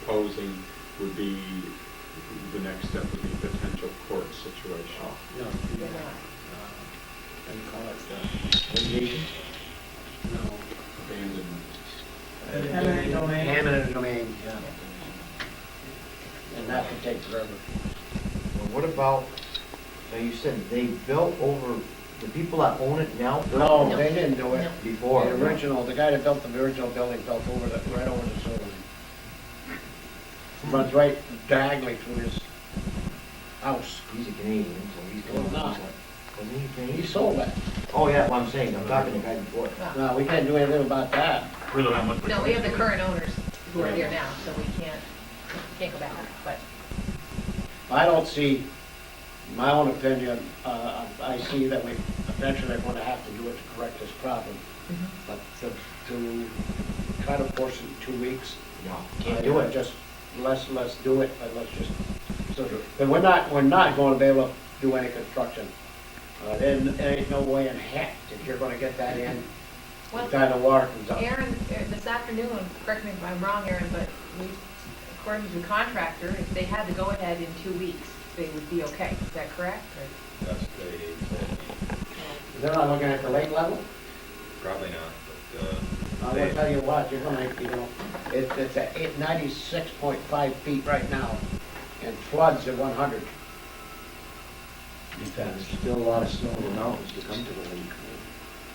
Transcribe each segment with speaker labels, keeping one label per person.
Speaker 1: proposing would be, the next step would be potential court situation.
Speaker 2: No,
Speaker 3: They're
Speaker 2: no,
Speaker 3: not.
Speaker 2: and call it, uh, litigation? No.
Speaker 1: Abandonment.
Speaker 3: Eminent domain.
Speaker 2: Eminent domain, yeah. And that could take forever.
Speaker 4: Well, What about, now you said they built over, the people that own it now built
Speaker 2: No, they didn't do it.
Speaker 3: No.
Speaker 4: before?
Speaker 2: The original, the guy that built the original building built over the, right over the sewer line. Runs right diagonally through his house.
Speaker 4: He's a Canadian, so he's.
Speaker 2: Well, not.
Speaker 4: Wasn't he
Speaker 2: He
Speaker 4: Canadian?
Speaker 2: sold that.
Speaker 4: Oh, yeah, well, I'm saying, I'm talking to the guy before.
Speaker 2: No, we can't do anything about that.
Speaker 3: No, we have the current owners who are here now, so we can't, can't go back, but
Speaker 2: I don't see, my own opinion, uh, I see that we, eventually they're gonna have to do it to correct this problem. But to, to try to force it in two weeks,
Speaker 4: No,
Speaker 2: I
Speaker 4: can't do it.
Speaker 2: Just let's, let's do it, and let's just, so, but we're not, we're not gonna be able to do any construction. Uh, there, there ain't no way in heck that you're gonna get that in, the
Speaker 3: Well,
Speaker 2: kind of water comes up.
Speaker 3: Aaron, uh, this afternoon, correct me if I'm wrong, Aaron, but we, according to the contractor, if they had to go ahead in two weeks, they would be okay. Is that correct? or-
Speaker 5: That's the,
Speaker 2: They're not looking at the lake level?
Speaker 5: probably not, but, uh,
Speaker 2: I'm
Speaker 5: they,
Speaker 2: gonna tell you what, you're gonna, you know, it's, it's at eight, ninety-six point five feet right now, and floods at one hundred.
Speaker 4: There's still a lot of snow in the mountains to come to the lake.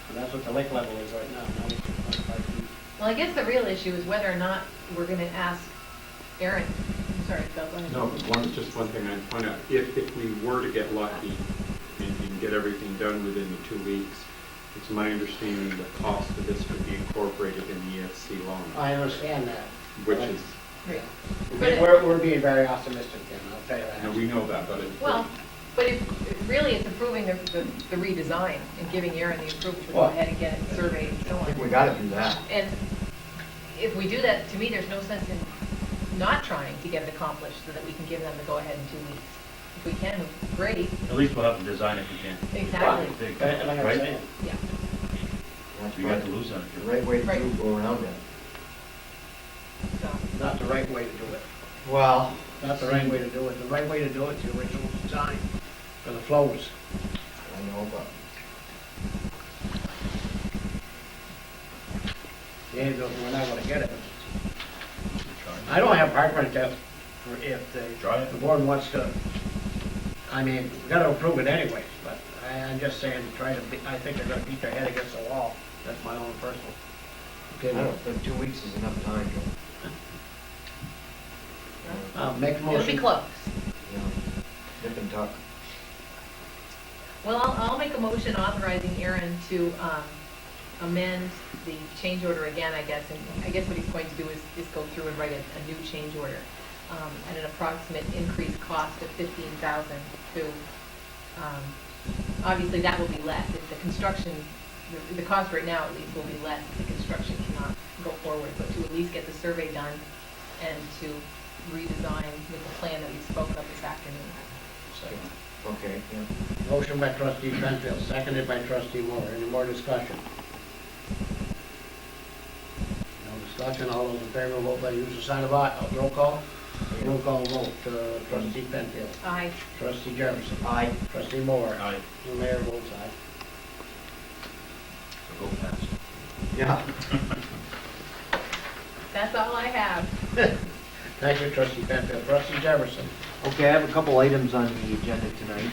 Speaker 2: And that's what the lake level is right now, ninety-six point five feet.
Speaker 3: Well, I guess the real issue is whether or not we're gonna ask Aaron, I'm sorry, Phil, go ahead.
Speaker 1: No, but one, just one thing I'd point out, if, if we were to get lucky and, and get everything done within the two weeks, it's my understanding the cost of this would be incorporated in the EFC loan,
Speaker 2: I understand that.
Speaker 1: which is,
Speaker 3: Right. But it-
Speaker 2: We're, we're being very optimistic then, I'll tell you that.
Speaker 1: now we know that, but it's.
Speaker 3: Well, but if, really, it's approving the the redesign and giving Aaron the approval to go
Speaker 4: Well,
Speaker 3: ahead and get it surveyed and so
Speaker 4: I think we
Speaker 3: on.
Speaker 4: gotta do that.
Speaker 3: And if we do that, to me, there's no sense in not trying to get it accomplished so that we can give them the go-ahead in two weeks. If we can, great,
Speaker 6: At least we'll have to design if we can.
Speaker 3: exactly,
Speaker 6: Big,
Speaker 2: And Like I'm
Speaker 6: Right?
Speaker 2: saying,
Speaker 3: yeah.
Speaker 4: That's
Speaker 6: We got
Speaker 4: right.
Speaker 6: to lose on it.
Speaker 4: The right way to do,
Speaker 3: Right.
Speaker 4: go around it.
Speaker 3: So,
Speaker 2: not the right way to do it,
Speaker 4: Well,
Speaker 2: not the right way to do it. The right way to do it's the original design for the flows.
Speaker 4: I know, but
Speaker 2: Yeah, though, we're not gonna get it. I don't have heartburn to, for if the,
Speaker 6: Try it.
Speaker 2: the board wants to, I mean, we gotta approve it anyways, but I, I'm just saying, try to, be- I think they're gonna beat their head against the wall. That's my own personal
Speaker 4: I
Speaker 2: opinion.
Speaker 4: don't think two weeks is enough time.
Speaker 2: Uh, make a
Speaker 3: It'll be
Speaker 2: motion.
Speaker 3: close.
Speaker 4: you know, Nip and tuck.
Speaker 3: Well, I'll, I'll make a motion authorizing Aaron to um, amend the change order again, I guess. And I guess what he's going to do is, is go through and write a, a new change order um, at an approximate increased cost of fifteen thousand to, um, obviously that will be less if the construction, the, the cost right now at least will be less if the construction cannot go forward, but to at least get the survey done and to redesign with the plan that we spoke of this afternoon.
Speaker 4: Okay, yeah.
Speaker 2: Motion by trustee Penfield, seconded by trustee Moore. Any more discussion? No discussion, all those in favor, vote by the usual sign of aye. Uh, Roll call? Roll call vote, uh, trustee Penfield,
Speaker 3: Aye.
Speaker 2: trustee Jefferson,
Speaker 4: Aye.
Speaker 2: trustee Moore.
Speaker 6: Aye.
Speaker 2: The mayor votes aye.
Speaker 6: Go fast.
Speaker 4: Yeah.
Speaker 3: That's all I have.
Speaker 2: Thank you, trustee Penfield. Trustee Jefferson.
Speaker 4: Okay, I have a couple items on the agenda tonight.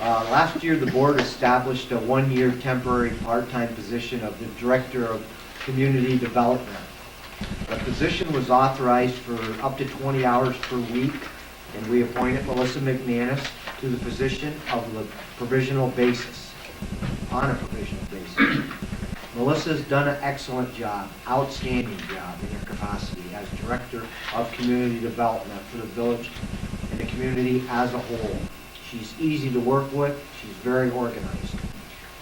Speaker 4: Uh, Last year, the board established a one-year temporary part-time position of the Director of Community Development. The position was authorized for up to 20 hours per week, and we appointed Melissa McManus to the position of the provisional basis, on a provisional basis. Melissa's done an excellent job, outstanding job in her capacity as Director of Community Development for the village and the community as a whole. She's easy to work with, she's very organized.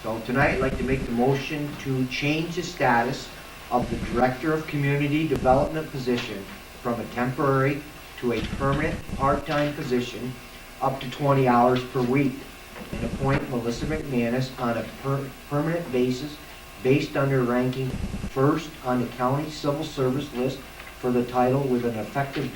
Speaker 4: So tonight, I'd like to make the motion to change the status of the Director of Community Development position from a temporary to a permanent part-time position up to 20 hours per week and appoint Melissa McManus on a per- permanent basis based on her ranking first on the county civil service list for for the title with an effective